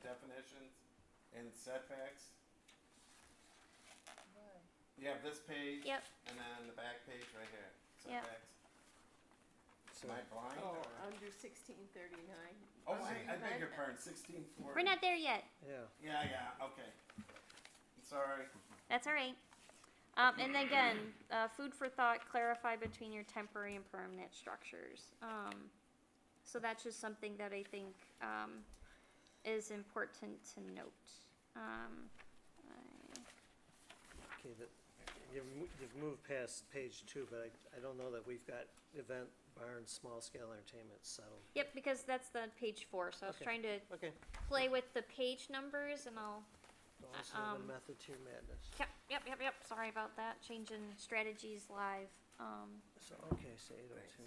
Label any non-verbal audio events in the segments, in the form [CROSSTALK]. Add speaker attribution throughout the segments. Speaker 1: definitions and setbacks. You have this page.
Speaker 2: Yep.
Speaker 1: And then the back page right here,
Speaker 2: Yep.
Speaker 1: setbacks.
Speaker 3: So,
Speaker 1: Am I blind?
Speaker 4: Oh,
Speaker 1: or-
Speaker 4: under sixteen thirty-nine.
Speaker 1: Oh, wait, I beg your pardon, sixteen forty.
Speaker 2: We're not there yet.
Speaker 3: yeah,
Speaker 1: Yeah, yeah, okay. I'm Sorry.
Speaker 2: That's all right. Um, and again, uh, food for thought, clarify between your temporary and permanent structures. Um, so that's just something that I think um, is important to note. Um, I-
Speaker 3: okay, that, you've, mo- you've moved past page two, but I, I don't know that we've got event barn, small scale entertainment settled.
Speaker 2: yep, because that's the page four. So I was
Speaker 3: Okay.
Speaker 2: trying to
Speaker 3: Okay.
Speaker 2: play with the page numbers and I'll.
Speaker 3: Also, the
Speaker 2: um,
Speaker 3: method to your madness.
Speaker 2: Yep, yep, yep, yep. Sorry about that. Changing strategies live. Um,
Speaker 3: So, okay, so eight oh two,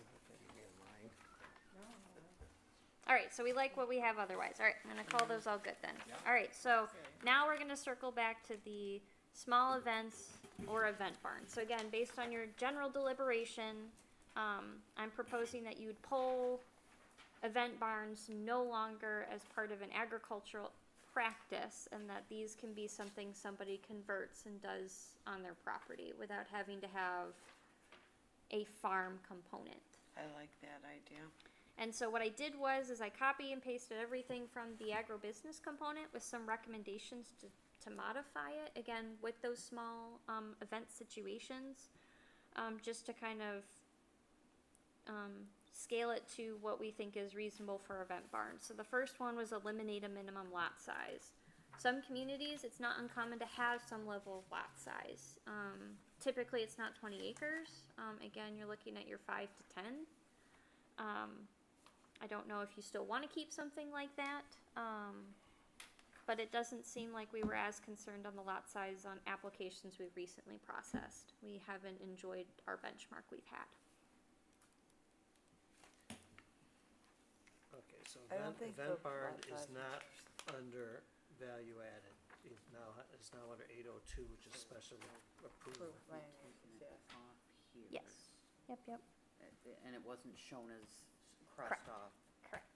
Speaker 3: okay.
Speaker 2: All right, so we like what we have otherwise. All right, I'm gonna call those all good then.
Speaker 1: Yeah.
Speaker 2: All right, so
Speaker 4: Okay.
Speaker 2: now we're gonna circle back to the small events or event barn. So again, based on your general deliberation, um, I'm proposing that you would poll event barns no longer as part of an agricultural practice and that these can be something somebody converts and does on their property without having to have a farm component.
Speaker 4: I like that idea.
Speaker 2: And so what I did was is I copy and pasted everything from the agribusiness component with some recommendations to, to modify it again with those small um, event situations, um, just to kind of um, scale it to what we think is reasonable for event barns. So the first one was eliminate a minimum lot size. Some communities, it's not uncommon to have some level of lot size. Um, typically, it's not 20 acres. Um, again, you're looking at your five to 10. Um, I don't know if you still want to keep something like that, um, but it doesn't seem like we were as concerned on the lot size on applications we've recently processed. We haven't enjoyed our benchmark we've had.
Speaker 3: Okay, so
Speaker 5: I don't
Speaker 3: event,
Speaker 5: think
Speaker 3: event
Speaker 5: the
Speaker 3: barn
Speaker 5: lot
Speaker 3: is
Speaker 5: size-
Speaker 3: not under value added, it's now, it's now under eight oh two, which is special approval.
Speaker 5: Approval. Land
Speaker 6: We're
Speaker 5: use,
Speaker 6: taking it
Speaker 5: yes.
Speaker 6: off here.
Speaker 2: Yes. Yep, yep.
Speaker 6: Uh, th- And it wasn't shown as crossed off,
Speaker 2: Correct.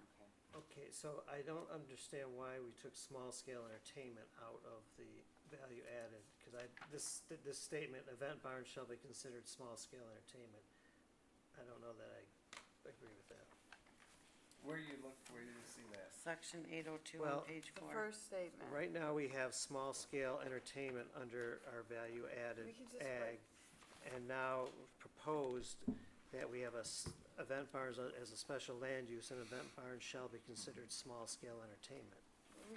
Speaker 6: okay.
Speaker 3: Okay, so I don't understand why we took small scale entertainment out of the value added, cause I, this, th- this statement, event barn shall be considered small scale entertainment. I don't know that I agree with that.
Speaker 1: Where you look, where you see that?
Speaker 4: Section eight oh two
Speaker 3: Well,
Speaker 4: on page
Speaker 5: The
Speaker 4: four.
Speaker 5: first statement.
Speaker 3: Right now, we have small scale entertainment under our value added
Speaker 5: We could just put-
Speaker 3: ag. And now proposed that we have a s- event barns a- as a special land use and event barns shall be considered small scale entertainment.
Speaker 5: We-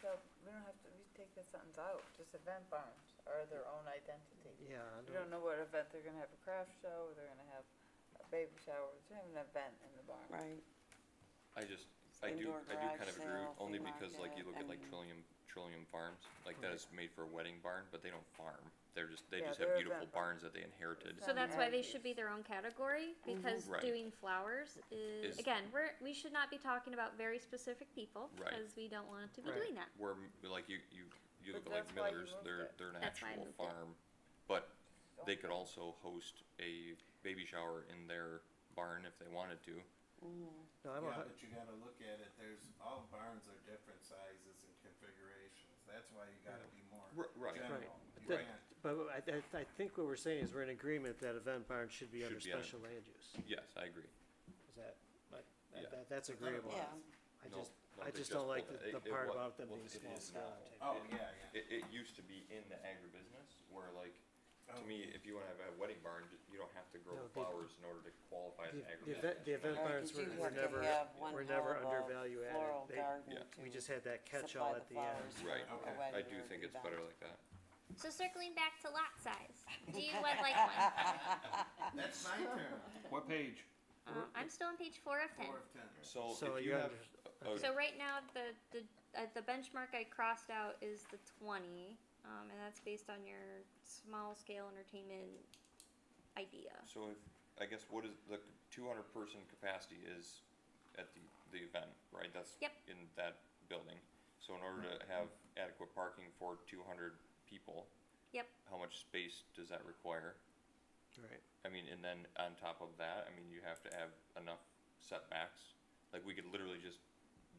Speaker 5: So we don't have to, we take the sentence out, just event barns are their own identity.
Speaker 3: Yeah, I
Speaker 5: We
Speaker 3: don't,
Speaker 5: don't know what event, they're gonna have a craft show, they're gonna have a baby shower, they're gonna have an event in the barn.
Speaker 4: Right,
Speaker 7: I just, I do,
Speaker 4: Indoor
Speaker 7: I do
Speaker 4: garage
Speaker 7: kind of agree,
Speaker 4: sale,
Speaker 7: only
Speaker 4: flea
Speaker 7: because like you
Speaker 4: market,
Speaker 7: look at like
Speaker 4: and-
Speaker 7: Trillium, Trillium Farms, like that is made for a wedding barn, but they don't farm. They're just, they
Speaker 5: Yeah,
Speaker 7: just
Speaker 5: they're
Speaker 7: have
Speaker 5: a
Speaker 7: beautiful
Speaker 5: vet barn.
Speaker 7: barns that they inherited.
Speaker 2: So that's why they
Speaker 5: Amenities.
Speaker 2: should be their own category because
Speaker 7: Right.
Speaker 2: doing flowers is,
Speaker 7: Is-
Speaker 2: again we're we should not be talking about very specific people
Speaker 7: Right.
Speaker 2: because we don't want to be
Speaker 3: Right.
Speaker 2: doing that.
Speaker 7: Where, m- like you, you,
Speaker 5: But
Speaker 7: you look at like
Speaker 5: that's why you
Speaker 7: Miller's,
Speaker 5: moved
Speaker 7: they're,
Speaker 5: it.
Speaker 7: they're an
Speaker 2: That's why I
Speaker 7: actual
Speaker 2: moved it.
Speaker 7: farm, but they could also host a baby shower in their barn if they wanted to.
Speaker 3: no, I'm a,
Speaker 1: Yeah,
Speaker 3: hu-
Speaker 1: but you gotta look at it, there's, all barns are different sizes and configurations, that's why you gotta be more
Speaker 7: R- right.
Speaker 1: general.
Speaker 3: Right.
Speaker 1: You
Speaker 3: That-
Speaker 1: can't-
Speaker 3: but I, I, I think what we're saying is we're in agreement that event barns should be
Speaker 7: Should
Speaker 3: under
Speaker 7: be under-
Speaker 3: special land use.
Speaker 7: Yes, I agree.
Speaker 3: Is that, like,
Speaker 7: Yeah.
Speaker 3: that, that- that's
Speaker 1: I thought it
Speaker 3: agreeable.
Speaker 1: was.
Speaker 4: yeah.
Speaker 3: I
Speaker 7: No,
Speaker 3: just,
Speaker 7: no,
Speaker 3: I
Speaker 7: they
Speaker 3: just don't like
Speaker 7: pulled
Speaker 3: the,
Speaker 7: it.
Speaker 3: the
Speaker 7: It- it
Speaker 3: part
Speaker 7: wa-
Speaker 3: about them
Speaker 7: well,
Speaker 3: being
Speaker 7: it
Speaker 3: small
Speaker 7: is
Speaker 3: scale
Speaker 7: now.
Speaker 3: entertainment.
Speaker 1: Oh, yeah, yeah.
Speaker 7: It, it used to be in the agribusiness where like, to
Speaker 1: Oh.
Speaker 7: me, if you wanna have a wedding barn, you- you don't have to grow
Speaker 3: No, the-
Speaker 7: flowers in order to qualify as
Speaker 3: The,
Speaker 7: an
Speaker 3: the
Speaker 7: agribusiness.
Speaker 3: event, the event
Speaker 4: Or you
Speaker 3: barns
Speaker 4: could
Speaker 3: were,
Speaker 4: do
Speaker 3: were
Speaker 4: like they
Speaker 3: never,
Speaker 4: have one
Speaker 3: were
Speaker 4: hell
Speaker 3: never
Speaker 4: of
Speaker 3: under
Speaker 4: a
Speaker 3: value
Speaker 4: floral
Speaker 3: added.
Speaker 4: garden
Speaker 7: yeah,
Speaker 3: They, we
Speaker 4: to
Speaker 3: just had that
Speaker 4: supply
Speaker 3: catch-all
Speaker 4: the
Speaker 3: at the end.
Speaker 4: flowers for
Speaker 7: Right,
Speaker 4: a
Speaker 1: Okay.
Speaker 7: I
Speaker 4: wedding
Speaker 7: do
Speaker 4: or
Speaker 7: think
Speaker 4: an
Speaker 7: it's better
Speaker 4: event.
Speaker 7: like that.
Speaker 2: So circling back to lot size, do [LAUGHS] you would like one?
Speaker 1: [LAUGHS] That's my turn,
Speaker 8: What page?
Speaker 2: Um, I'm still on page four of ten.
Speaker 1: four of ten.
Speaker 7: So
Speaker 3: So
Speaker 7: if
Speaker 3: you
Speaker 7: you have,
Speaker 3: under-
Speaker 7: a-
Speaker 2: So right now, the the uh, the benchmark I crossed out is the twenty, um, and that's based on your small scale entertainment idea.
Speaker 7: so if, I guess what is, the two hundred person capacity is at the, the event, right? That's
Speaker 2: Yep. Mm-hmm.
Speaker 7: in that building. So in order to have adequate parking for two hundred people.
Speaker 2: Yep.
Speaker 7: How much space does that require?
Speaker 3: Right.
Speaker 7: I mean, and then on top of that, I mean, you have to have enough setbacks. Like we could literally just